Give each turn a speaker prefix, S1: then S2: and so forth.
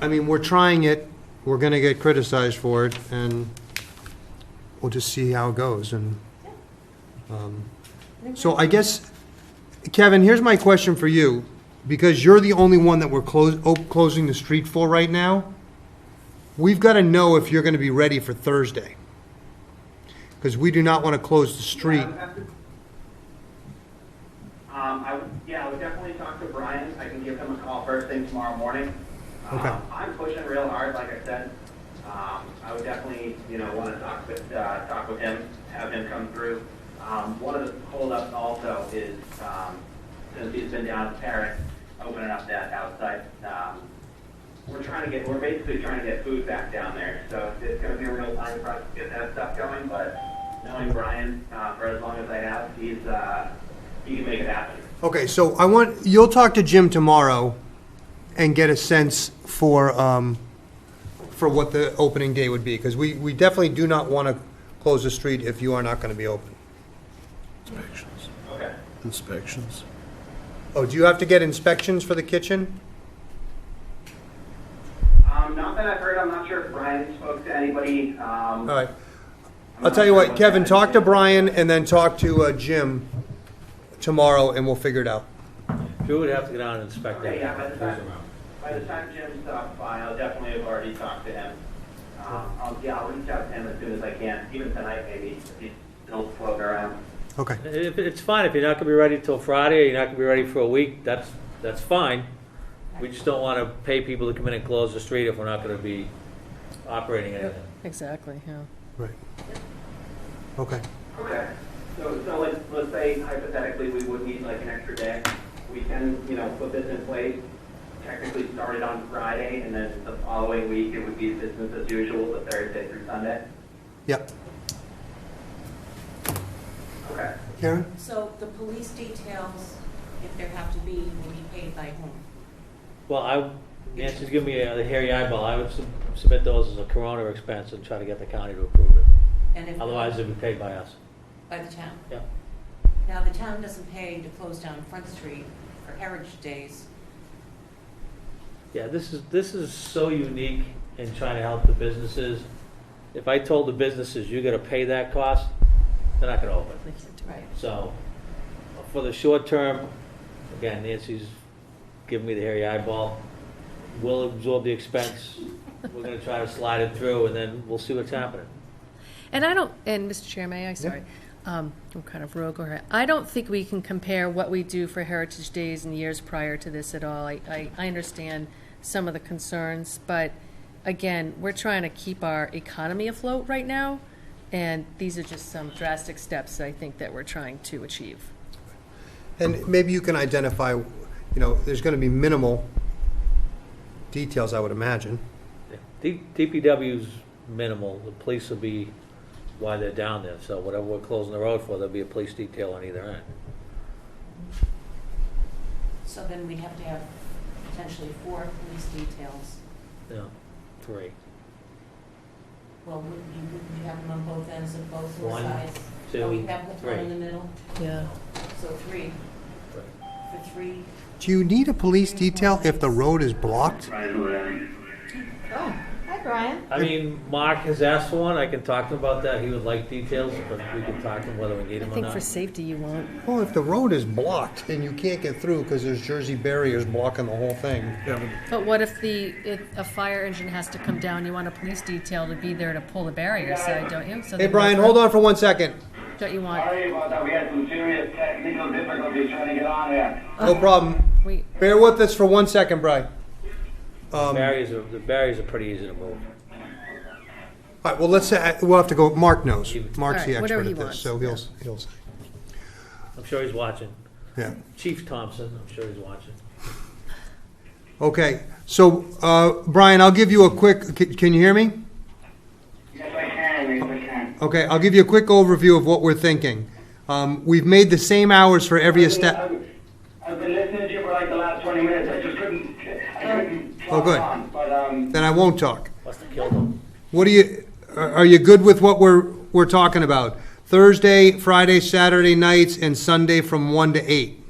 S1: I mean, we're trying it, we're gonna get criticized for it, and we'll just see how it goes, and, um, so I guess, Kevin, here's my question for you, because you're the only one that we're close, op- closing the street for right now. We've gotta know if you're gonna be ready for Thursday, because we do not wanna close the street.
S2: Um, I would, yeah, I would definitely talk to Brian. I can give him a call first thing tomorrow morning.
S1: Okay.
S2: Um, I'm pushing real hard, like I said. Um, I would definitely, you know, want to talk with, uh, talk with him, have him come through. Um, one of the holdups also is, um, since he's been down at Paris, opening up that outside, um, we're trying to get, we're basically trying to get food back down there, so it's gonna be a real time for us to get that stuff going, but knowing Brian, uh, for as long as I have, he's, uh, he can make it happen.
S1: Okay, so I want, you'll talk to Jim tomorrow and get a sense for, um, for what the opening day would be, because we, we definitely do not want to close the street if you are not going to be open.
S3: Inspections,
S2: Okay.
S3: inspections.
S1: Oh, do you have to get inspections for the kitchen?
S2: Um, not that I've heard, I'm not sure if Brian spoke to anybody, um.
S1: All right. I'll tell you what, Kevin, talk to Brian and then talk to uh, Jim tomorrow, and we'll figure it out.
S4: Drew would have to go down and inspect
S2: Okay, yeah, by the time,
S4: that.
S2: by the time Jim stops by, I'll definitely have already talked to him. Um, I'll, yeah, I'll reach out to him as soon as I can, even tonight maybe, if he's still floating around.
S1: Okay.
S4: If- It's fine, if you're not gonna be ready till Friday, you're not gonna be ready for a week, that's, that's fine. We just don't wanna pay people to come in and close the street if we're not gonna be operating anything.
S5: Exactly, yeah.
S1: Right. Okay.
S2: Okay, so, so let's, let's say hypothetically, we would need like an extra day. We can, you know, put this in place, technically start it on Friday, and then the following week, it would be business as usual, the Thursday through Sunday.
S1: Yep.
S2: Okay.
S1: Karen?
S6: So the police details, if there have to be, will be paid by whom?
S4: Well, I, Nancy's giving me uh, the hairy eyeball, I would sub- submit those as a corona expense and try to get the county to approve it.
S6: And if
S4: Otherwise, it'd be paid by us.
S6: By the town.
S4: Yeah.
S6: Now, the town doesn't pay to close down Front Street for Heritage Days.
S4: Yeah, this is, this is so unique in trying to help the businesses. If I told the businesses, you're gonna pay that cost, they're not gonna open.
S6: Right.
S4: So, for the short term, again, Nancy's giving me the hairy eyeball. We'll absorb the expense. We're gonna try to slide it through, and then we'll see what's happening.
S5: And I don't, and Mr. Chair, may I, sorry, um, I'm kind of rogue over here. I don't think we can compare what we do for Heritage Days and years prior to this at all. I, I, I understand some of the concerns, but again, we're trying to keep our economy afloat right now, and these are just some drastic steps, I think, that we're trying to achieve.
S1: And maybe you can identify, you know, there's going to be minimal details, I would imagine.
S4: D- DPW's minimal, the police will be why they're down there, so whatever we're closing the road for, there'll be a police detail on either end.
S6: So then we'd have to have potentially four police details.
S4: Yeah, three.
S6: Well, would you, would you have them on both ends of both
S4: One,
S6: sides?
S4: two,
S6: Or Oh, we have one
S4: three.
S6: in the middle?
S5: Yeah.
S6: So three,
S4: Right.
S6: for three.
S1: Do you need a police detail if the road is blocked?
S6: Oh, hi, Brian.
S4: I mean, Mark has asked for one, I can talk to him about that, he would like details, but we can talk to him whether we need
S5: I
S4: him or
S5: think
S4: not.
S5: for safety, you won't.
S1: Well, if the road is blocked and you can't get through because there's Jersey barriers blocking the whole thing.
S5: But what if the, if a fire engine has to come down, you want a police detail to be there to pull the barrier aside, don't you?
S1: Hey, Brian, hold on for one second.
S5: Don't you want,
S2: Sorry about that, we had some serious technical difficulties trying to get on there.
S1: No problem.
S5: wait,
S1: Bear with us for one second, Brian. Um, all
S4: Barriers are, the barriers are pretty easy to move.
S1: right, well, let's, say- we'll have to go, Mark knows. Mark's the
S5: All right, whatever
S1: expert
S5: he
S1: at this,
S5: wants.
S1: so he'll, he'll, say.
S4: I'm sure he's watching.
S1: yeah.
S4: Chief Thompson, I'm sure he's watching.
S1: Okay, so, uh, Brian, I'll give you a quick, can- can you hear me?
S2: Yes, I can, yes, I can.
S1: Okay, I'll give you a quick overview of what we're thinking. Um, We've made the same hours for every step.
S2: I've been listening to you for like the last twenty minutes, I just couldn't, I couldn't.
S1: Oh, good.
S2: on, But, um,
S1: then I won't talk.
S4: Must have killed him.
S1: What do you, are are you good with what we're, we're talking about? Thursday, Friday, Saturday nights, and Sunday from 1 to 8?
S2: um,